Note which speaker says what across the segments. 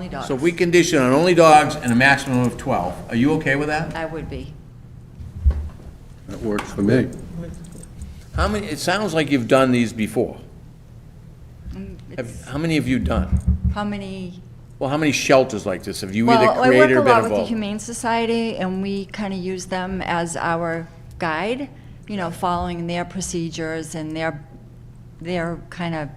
Speaker 1: Only dogs.
Speaker 2: So we condition on only dogs and a maximum of 12. Are you okay with that?
Speaker 1: I would be.
Speaker 3: That works for me.
Speaker 2: How many, it sounds like you've done these before. Have-
Speaker 1: Mm, It's-
Speaker 2: How many have you done?
Speaker 1: How many?
Speaker 2: Well, how many shelters like this have you either
Speaker 1: Well, I work
Speaker 2: created
Speaker 1: a lot
Speaker 2: or been
Speaker 1: with the
Speaker 2: involved?
Speaker 1: Humane Society, and we kind of use them as our guide, you know, following their procedures and their, their kind of,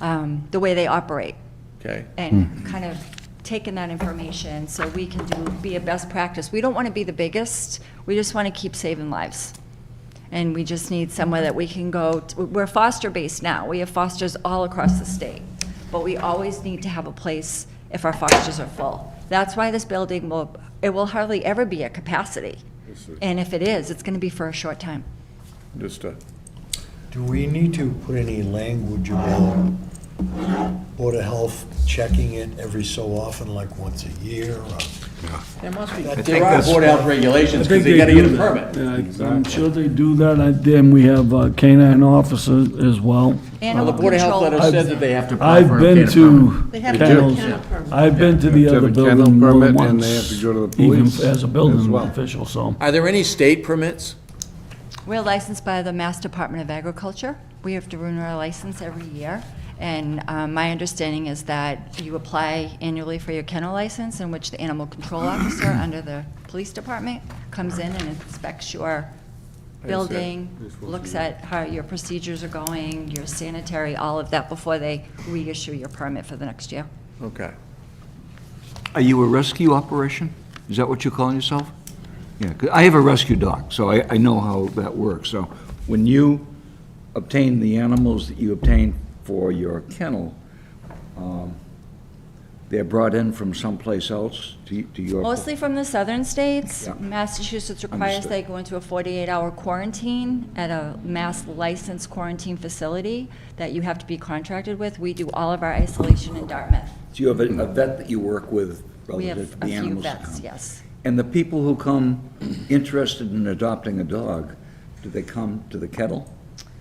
Speaker 1: um, the way they operate,
Speaker 2: Okay,
Speaker 1: and kind of taking that information so we can do, be a best practice. We don't want to be the biggest, we just want to keep saving lives. And we just need somewhere that we can go, t- we're foster-based now, we have fosters all across the state, but we always need to have a place if our fosters are full. That's why this building will, it will hardly ever be at capacity. And if it is, it's going to be for a short time.
Speaker 2: just, uh,
Speaker 4: Do we need to put any language about Board of Health checking it every so often, like once a year? or-
Speaker 2: there must be,
Speaker 4: think
Speaker 2: there are
Speaker 4: that's-
Speaker 2: board health regulations because they
Speaker 5: I
Speaker 2: gotta
Speaker 5: think
Speaker 2: get a
Speaker 5: do that.
Speaker 2: permit.
Speaker 5: Yeah, I'm sure they do that, I- then we have uh, canine officers as well.
Speaker 2: Well,
Speaker 1: Animal
Speaker 2: the board of health letter
Speaker 1: control,
Speaker 2: said that they have to. apply for
Speaker 5: I've
Speaker 2: a
Speaker 5: been
Speaker 2: kennel permit.
Speaker 5: to
Speaker 6: They have to have a
Speaker 5: kennels,
Speaker 6: kennel permit.
Speaker 5: I've been to the
Speaker 3: have to
Speaker 5: other
Speaker 3: have a kennel
Speaker 5: building more
Speaker 3: permit,
Speaker 5: once.
Speaker 3: and they have to go to the
Speaker 5: even
Speaker 3: police
Speaker 5: As a
Speaker 3: as
Speaker 5: building
Speaker 3: well.
Speaker 5: official, so.
Speaker 2: Are there any state permits?
Speaker 1: We're licensed by the Mass Department of Agriculture. We have to renew our license every year. And um, my understanding is that you apply annually for your kennel license, in which the animal control officer under the police department comes in and inspects your building, looks at how your procedures are going, your sanitary, all of that, before they reissue your permit for the next year.
Speaker 2: Okay.
Speaker 7: Are you a rescue operation? Is that what you're calling yourself? Yeah, 'cause I have a rescue dog, so I, I know how that works. So when you obtain the animals that you obtain for your kennel, um, they're brought in from someplace else to, to your...
Speaker 1: Mostly from the southern states.
Speaker 7: Yeah.
Speaker 1: Massachusetts requires
Speaker 7: Understood.
Speaker 1: they go into a 48-hour quarantine at a mass licensed quarantine facility that you have to be contracted with. We do all of our isolation in Dartmouth.
Speaker 7: Do you have a a vet that you work with
Speaker 1: We have
Speaker 7: relative
Speaker 1: a
Speaker 7: to Oh, the
Speaker 1: few
Speaker 7: animals that
Speaker 1: vets,
Speaker 7: come?
Speaker 1: yes.
Speaker 7: And the people who come interested in adopting a dog, do they come to the kennel?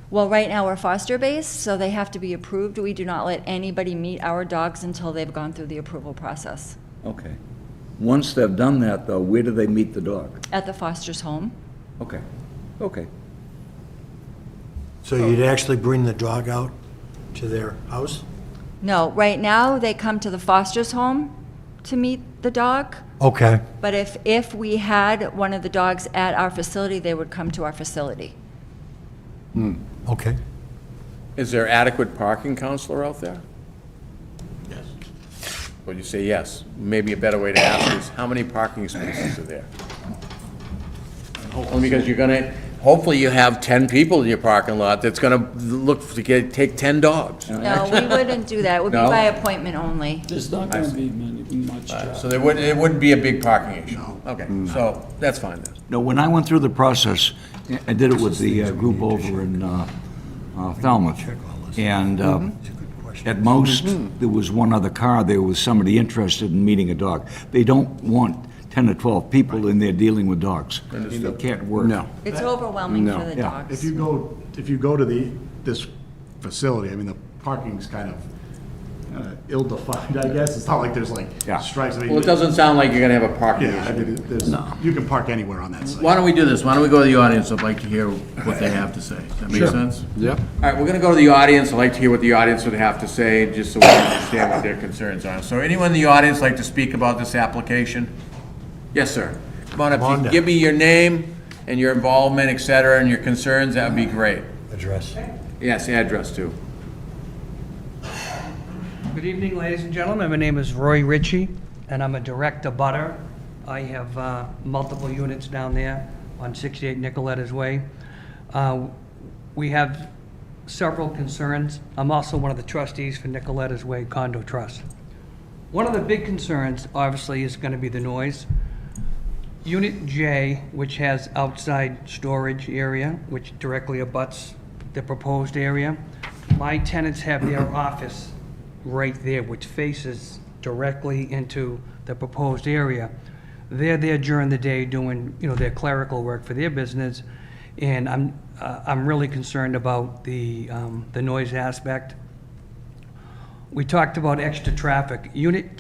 Speaker 1: Well, right now, we're foster-based, so they have to be approved. We do not let anybody meet our dogs until they've gone through the approval process
Speaker 7: Okay. Once they've done that, though, where do they meet the dog?
Speaker 1: at the foster's home.
Speaker 7: Okay, okay.
Speaker 4: So you'd actually bring the dog out to their house?
Speaker 1: No, right now, they come to the foster's home to meet the dog.
Speaker 4: Okay.
Speaker 1: But if, if we had one of the dogs at our facility, they would come to our facility.
Speaker 4: Okay.
Speaker 2: Is there adequate parking counselor out there? Yes. Well, you say yes. Maybe a better way to ask is, how many parking spaces are there? Only because you're gonna, hopefully you have 10 people in your parking lot that's gonna look to get, take 10 dogs.
Speaker 1: No, we wouldn't do that. It would be
Speaker 2: No?
Speaker 1: by appointment only.
Speaker 5: There's not gonna be much
Speaker 2: So there wouldn't, it wouldn't be a big parking issue? Okay, so that's fine then.
Speaker 7: No, when I went through the process, I did it with the uh, group over in uh, uh, Falmouth. And um, at most, there was one other car there with somebody interested in meeting a dog. They don't want 10 or 12 people in there dealing with dogs. It can't work. No.
Speaker 1: It's overwhelming for the
Speaker 7: Yeah.
Speaker 8: If
Speaker 1: dogs.
Speaker 8: you go, if you go to the, this facility, I mean, the parking's kind of uh, ill-defined, I guess. It's not like there's like
Speaker 7: Yeah.
Speaker 8: stripes. I mean,
Speaker 2: Well, it doesn't sound like you're gonna have a parking
Speaker 8: Yeah, I
Speaker 2: issue.
Speaker 8: mean, there's, you can park anywhere on that site.
Speaker 2: Why don't we do this? Why don't we go to the audience? I'd like to hear what they have to say. Does that make sense?
Speaker 3: Yep.
Speaker 2: All right, we're going to go to the audience. I'd like to hear what the audience would have to say, just so we understand what their concerns are. So anyone in the audience like to speak about this application? Yes, sir. Come on up. If you
Speaker 4: Wanda.
Speaker 2: Give me your name and your involvement, et cetera, and your concerns. That would be great.
Speaker 4: Address.
Speaker 2: Yes, address too.
Speaker 9: Good evening, ladies and gentlemen. My name is Roy Ritchie, and I'm a direct abutter. I have uh, multiple units down there on 68 Nicoletta's Way. Uh, We have several concerns. I'm also one of the trustees for Nicoletta's Way Condo Trust. One of the big concerns, obviously, is going to be the noise. Unit J, which has outside storage area, which directly abuts the proposed area, my tenants have their office right there, which faces directly into the proposed area. They're there during the day doing, you know, their clerical work for their business, and I'm, uh, I'm really concerned about the, um, the noise aspect. we talked about extra traffic. Unit